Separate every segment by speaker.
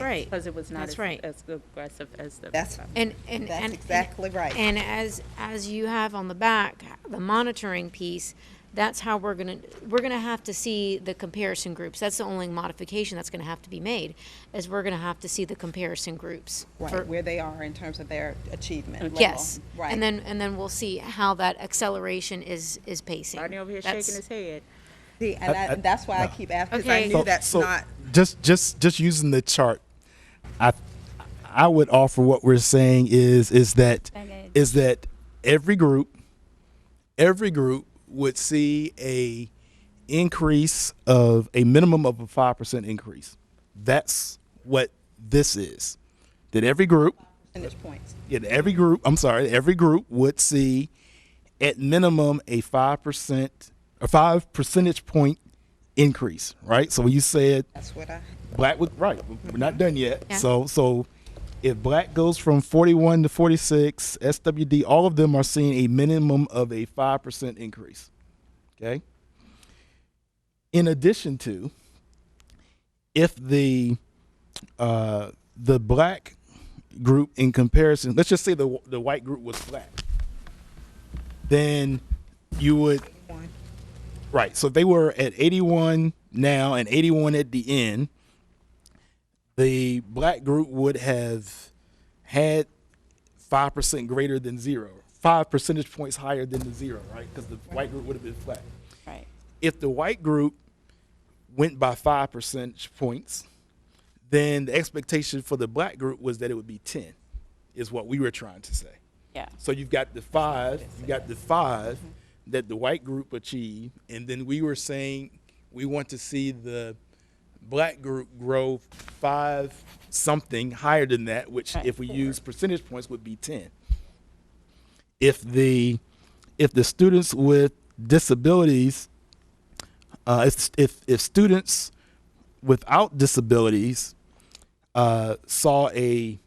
Speaker 1: right.
Speaker 2: Because it was not
Speaker 1: That's
Speaker 2: as-
Speaker 1: right.
Speaker 2: as aggressive as the.
Speaker 3: That's-
Speaker 2: um,
Speaker 4: And, and,
Speaker 3: That's
Speaker 4: and-
Speaker 3: exactly right.
Speaker 4: And as, as you have on the back, the monitoring piece, that's how we're gonna, we're gonna have to see the comparison groups. That's the only modification that's gonna have to be made, is we're gonna have to see the comparison groups. for-
Speaker 3: Right, where they are in terms of their achievement level.
Speaker 4: Yes.
Speaker 3: Right.
Speaker 4: And then, and then we'll see how that acceleration is, is pacing.
Speaker 2: Rodney over here shaking
Speaker 4: That's-
Speaker 2: his head.
Speaker 3: See, and I, that's why I keep asking, because I
Speaker 2: Okay.
Speaker 3: knew that's not,
Speaker 5: just just just using the chart i i would offer what we're saying is is that is that every group every group would see a increase of a minimum of a 5% increase that's what this is that every group
Speaker 3: percentage points.
Speaker 5: yeah, every group, I'm sorry, every group would see at minimum a 5% a 5 percentage point increase, right? So when you said
Speaker 3: That's what I,
Speaker 5: black with right, we're not done yet.
Speaker 4: Yeah.
Speaker 5: So so if black goes from 41 to 46, SWD, all of them are seeing a minimum of a 5% increase. Okay? In addition to if the uh, the black group in comparison, let's just say the the white group was black, then you would right. So if they were at eighty one now and eighty one at the end. The black group would have had five percent greater than zero, five percentage points higher than the zero, right? Because the white group would have been flat.
Speaker 3: right.
Speaker 5: If the white group went by five percentage points, then the expectation for the black group was that it would be 10, is what we were trying to say.
Speaker 2: Yeah.
Speaker 5: So you've got the five, you got the 5 that the white group achieved, and then we were saying we want to see the black group grow five something higher than that, which
Speaker 2: Right,
Speaker 5: if we use percentage points would be 10. If the if the students with disabilities uh, if, if, if students without disabilities uh, saw a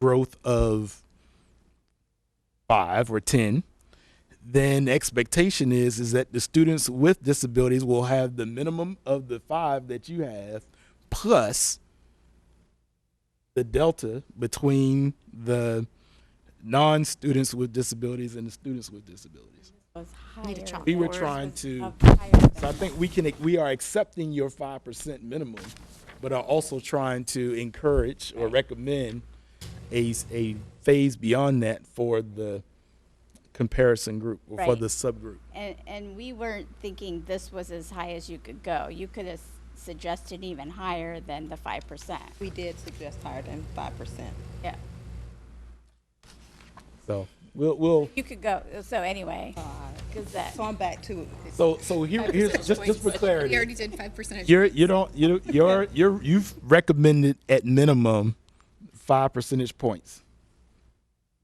Speaker 5: growth of five or 10, then the expectation is, is that the students with disabilities will have the minimum of the five that you have plus the delta between the non-students with disabilities and the students with disabilities.
Speaker 4: Need a chalk.
Speaker 5: We were trying to, so I think we can, we are accepting your five percent minimum, but are also trying to encourage or recommend a, s- a phase beyond that for the comparison group, or for
Speaker 6: Right.
Speaker 5: the subgroup.
Speaker 6: And, and we weren't thinking this was as high as you could go. You could have suggested even higher than the five percent.
Speaker 3: We did suggest higher than five percent.
Speaker 6: Yeah,
Speaker 5: So, we'll, we'll,
Speaker 6: you could go, so anyway, because that,
Speaker 3: Uh, So I'm back to,
Speaker 5: so, so here, here's, just, just for
Speaker 7: We
Speaker 5: clarity.
Speaker 7: already did five percent.
Speaker 5: You're, you don't, you, don't- you're, you're, you've recommended at minimum five percentage points.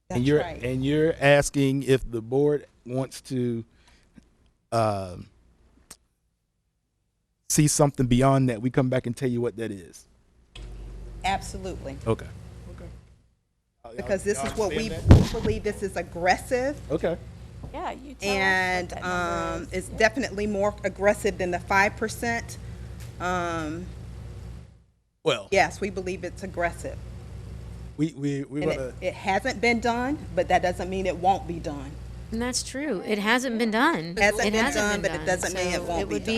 Speaker 3: that's
Speaker 5: and you're
Speaker 3: right.
Speaker 5: and you're asking if the board wants to um, see something beyond that. We come back and tell you what that is.
Speaker 3: Absolutely.
Speaker 5: Okay.
Speaker 3: Because this is what we believe this is aggressive
Speaker 5: Okay.
Speaker 6: yeah, you
Speaker 4: Oh,
Speaker 6: tell us what
Speaker 3: and
Speaker 6: that number
Speaker 3: um,
Speaker 6: is.
Speaker 3: it's definitely more aggressive than the five percent. Um,
Speaker 5: Well,
Speaker 3: yes, we believe it's aggressive.
Speaker 5: we we we
Speaker 3: And
Speaker 5: wanna,
Speaker 3: it, it hasn't been done, but that doesn't mean it won't be done.
Speaker 4: And that's true. It hasn't been done.
Speaker 3: Hasn't
Speaker 4: It
Speaker 3: been
Speaker 4: hasn't
Speaker 3: done,
Speaker 4: been
Speaker 3: but it doesn't mean it
Speaker 4: So
Speaker 3: won't be
Speaker 4: would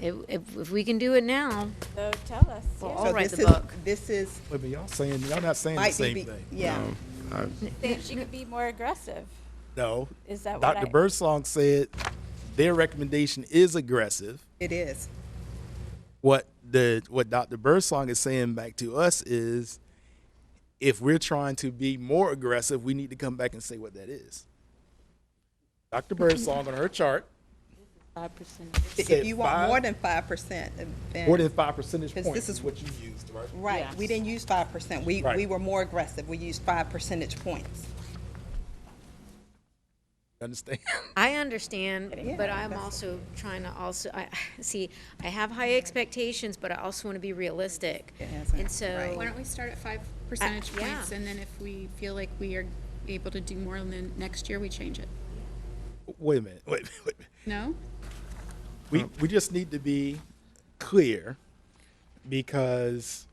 Speaker 4: It, if, if we can do it now,
Speaker 6: So tell us,
Speaker 4: Well,
Speaker 6: yeah.
Speaker 4: I'll
Speaker 3: So
Speaker 4: write
Speaker 3: this
Speaker 4: the
Speaker 3: is-
Speaker 4: book.
Speaker 3: This is,
Speaker 5: wait, but y'all saying y'all not saying the
Speaker 3: might be,
Speaker 5: same
Speaker 3: be-
Speaker 5: thing.
Speaker 3: yeah.
Speaker 6: Think she could be more aggressive.
Speaker 5: No.
Speaker 6: Is that what
Speaker 5: Dr.
Speaker 6: I?
Speaker 5: Birdsong said their recommendation is aggressive.
Speaker 3: It is.
Speaker 5: what the what Dr. Birdsong is saying back to us is if we're trying to be more aggressive, we need to come back and say what that is. Dr. Birdsong on her chart
Speaker 3: If
Speaker 5: said
Speaker 3: you want
Speaker 5: five-
Speaker 3: more than five percent, then.
Speaker 5: more than five percentage
Speaker 3: Because
Speaker 5: points
Speaker 3: this is-
Speaker 5: what you used, right?
Speaker 3: Right, we didn't use five percent. We,
Speaker 5: Right.
Speaker 3: we were more aggressive. We used five percentage points.
Speaker 5: Understand?
Speaker 4: I understand, but I'm
Speaker 3: that's-
Speaker 4: also trying to also, I, see, I have high expectations, but I also want to be realistic.
Speaker 3: Yes,
Speaker 4: And
Speaker 3: right.
Speaker 7: Why
Speaker 4: so,
Speaker 7: don't we start at five percentage
Speaker 4: yeah.
Speaker 7: points, and then if we feel like we are able to do more than next year, we change it?
Speaker 5: Wait a minute. Wait, a minute, wait. a
Speaker 3: Uh-huh.
Speaker 5: minute.
Speaker 7: No?
Speaker 5: We we just need to be clear because